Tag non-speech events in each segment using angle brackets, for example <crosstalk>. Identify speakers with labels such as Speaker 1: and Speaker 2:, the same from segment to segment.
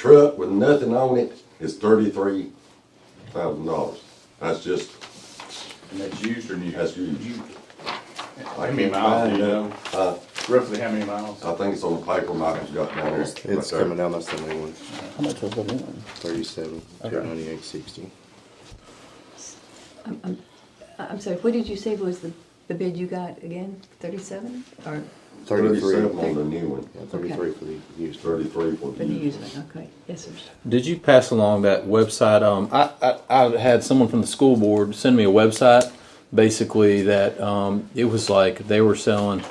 Speaker 1: truck with nothing on it is thirty-three thousand dollars. That's just,
Speaker 2: And that's used or new?
Speaker 1: that's huge.
Speaker 2: How many miles do you know?
Speaker 1: Uh,
Speaker 2: Roughly how many miles?
Speaker 1: I think it's on the paper Michael's got down there.
Speaker 3: It's coming down, that's the new one,
Speaker 4: How much was the new one?
Speaker 3: thirty-seven, two ninety-eight sixty.
Speaker 5: I- I'm sorry, what did you say was the, the bid you got again, thirty-seven, or,
Speaker 3: Thirty-three,
Speaker 1: Thirty-seven on the new one,
Speaker 3: yeah, thirty-three for the used.
Speaker 1: thirty-three for
Speaker 5: for
Speaker 1: the
Speaker 5: the
Speaker 1: used.
Speaker 5: used one, okay, yes, sir.
Speaker 4: Did you pass along that website? Um, I, I, I had someone from the school board send me a website, basically that um, it was like they were selling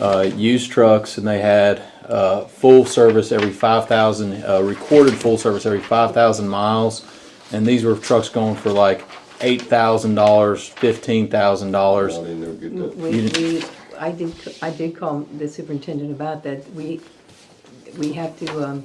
Speaker 4: uh, used trucks and they had uh, full service every five thousand uh, recorded full service every five thousand miles, and these were trucks going for like eight thousand dollars, fifteen thousand
Speaker 1: I
Speaker 4: dollars.
Speaker 1: didn't know get that.
Speaker 5: We, we, I did, I did call the superintendent about that, we, we have to, um,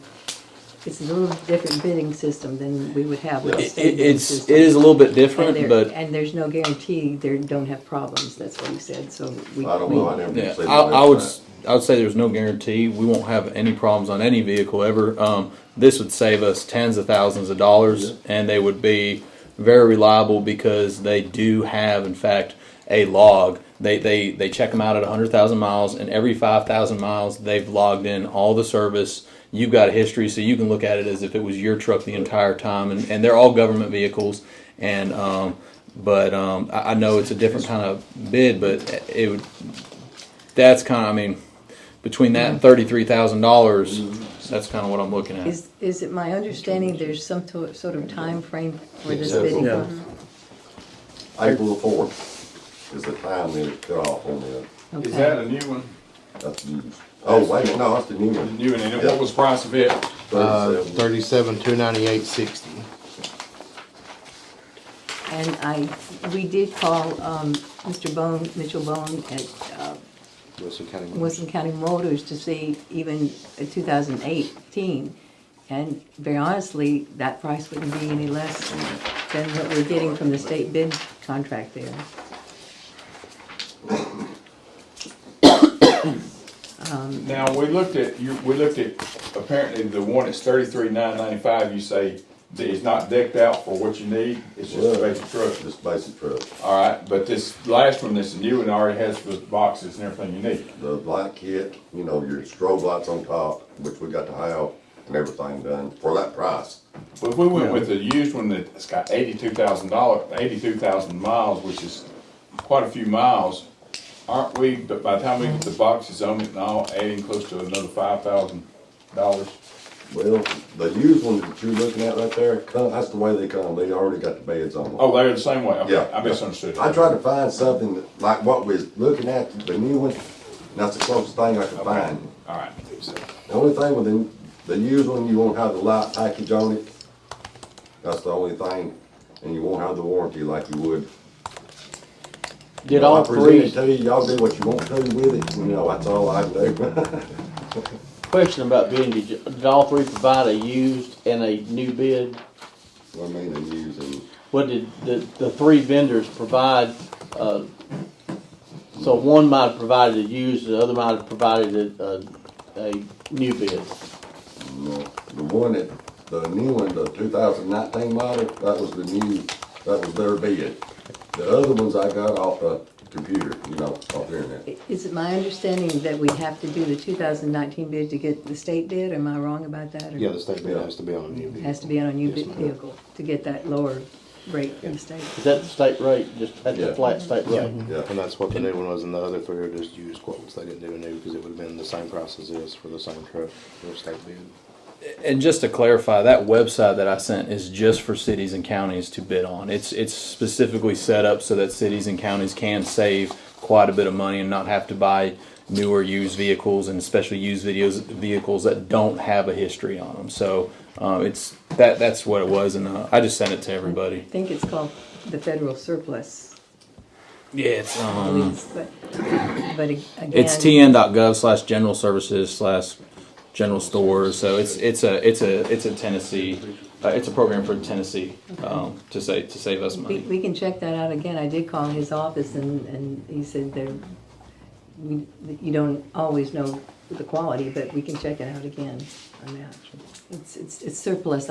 Speaker 5: it's a little different bidding system than we would have with the
Speaker 4: It,
Speaker 5: state
Speaker 4: it-
Speaker 5: bidding
Speaker 4: it's
Speaker 5: system.
Speaker 4: it is a little bit
Speaker 5: And
Speaker 4: different,
Speaker 5: there-
Speaker 4: but
Speaker 5: And there's no guarantee they don't have problems, that's what he said, so we.
Speaker 1: I don't
Speaker 5: we-
Speaker 1: know, I never
Speaker 4: Yeah,
Speaker 1: seen
Speaker 4: I, I would,
Speaker 1: that.
Speaker 4: s- I would say there's no guarantee. We won't have any problems on any vehicle ever. Um, this would save us tens of thousands of dollars and they would be very reliable because they do have, in fact, a log. They, they, they check them out at hundred thousand miles and every five thousand miles, they've logged in all the service. You've got a history, so you can look at it as if it was your truck the entire time and, and they're all government vehicles. And, um, but, um, I, I know it's a different kind of bid, but it would, that's kind of, I mean, between that and thirty-three thousand dollars, that's kind of what I'm looking at.
Speaker 5: Is, is it my understanding there's some to- sort of time frame for this
Speaker 1: Yeah.
Speaker 5: bidding?
Speaker 1: Yeah. April the fourth is the time that it cut off on the,
Speaker 2: Is
Speaker 5: Okay.
Speaker 2: that a new one?
Speaker 1: that's used. Oh, wait, no, that's the new
Speaker 2: The
Speaker 1: one.
Speaker 2: new one, and what was the price of it?
Speaker 3: Uh,
Speaker 1: Thirty-seven.
Speaker 3: thirty-seven, two ninety-eight sixty.
Speaker 5: And I, we did call um, Mr. Bone, Mitchell Bone at uh,
Speaker 3: Wilson County.
Speaker 5: Wilson County Motors to see even uh, 2018. And very honestly, that price wouldn't be any less than what we're getting from the state bid contract there.
Speaker 2: Now, we looked at, you, we looked at, apparently the one that's thirty-three nine ninety-five, you say that it's not decked out for what you need, it's just a
Speaker 1: Yeah.
Speaker 2: basic truck.
Speaker 1: Just basic truck.
Speaker 2: All right, but this last one, this new one already has the boxes and everything you need.
Speaker 1: the light kit, you know, your strobe lights on top, which we got to have, and everything done for that price.
Speaker 2: But if we went with a used one that's got eighty-two thousand dollar, eighty-two thousand miles, which is quite a few miles, aren't we, but by the time we get the boxes on it and all, adding close to another five thousand dollars?
Speaker 1: Well, the used one that you're looking at right there, come- that's the way they come, they already got the beds on them.
Speaker 2: Oh, they're the same way, okay,
Speaker 1: Yeah.
Speaker 2: I misunderstood.
Speaker 1: I tried to find something that- like what we're looking at, the new one, and that's the closest thing I could
Speaker 2: Okay,
Speaker 1: find.
Speaker 2: all right, so,
Speaker 1: The only thing with the, the used one, you won't have the light package on it, that's the only thing, and you won't have the warranty like you would.
Speaker 4: Did
Speaker 1: You know,
Speaker 4: all
Speaker 1: I presented
Speaker 4: three,
Speaker 1: to you, y'all do what you want to with it, you know, that's all I do. <laughs>
Speaker 6: Question about bidding, did, you- did all three provide a used and a new bid?
Speaker 1: I mean, and using,
Speaker 6: What did the, the three vendors provide, uh, so one might have provided a used, the other might have provided a, a, a new bid?
Speaker 1: you know, the one that, the new one, the two thousand nineteen model, that was the new, that was their bid. The other ones I got off the computer, you know, off the internet.
Speaker 5: I- Is it my understanding that we have to do the 2019 bid to get the state bid? Am I wrong about that? or-
Speaker 3: Yeah, the state bid has to be on a new
Speaker 5: It
Speaker 3: vehicle.
Speaker 5: Has to be on a new
Speaker 3: Yes,
Speaker 5: bid
Speaker 3: ma'am.
Speaker 5: vehicle to get that lower rate from the
Speaker 3: Yeah.
Speaker 5: state.
Speaker 6: Is that the state rate, just at
Speaker 1: Yeah.
Speaker 6: the flat state rate?
Speaker 1: Yeah.
Speaker 3: And that's what the new one was, and the other three are just used quotes, they didn't do a new, because it would've been the same price as this for the same truck, for state bid.
Speaker 4: and just to clarify, that website that I sent is just for cities and counties to bid on. It's, it's specifically set up so that cities and counties can save quite a bit of money and not have to buy newer used vehicles and especially used videos, vehicles that don't have a history on them. So, uh, it's, that, that's what it was and, uh, I just sent it to everybody.
Speaker 5: I think it's called the federal surplus.
Speaker 4: Yeah, it's,
Speaker 5: I
Speaker 4: um.
Speaker 5: believe it's- But but ag- again.
Speaker 4: It's tn.gov slash general services slash general stores. So it's it's a it's a it's a Tennessee, uh, it's a program for Tennessee um, to say to save us
Speaker 5: We,
Speaker 4: money.
Speaker 5: we can check that out again. I did call his office and, and he said there, we- you don't always know the quality, but we can check it out again on that. It's, it's it's surplus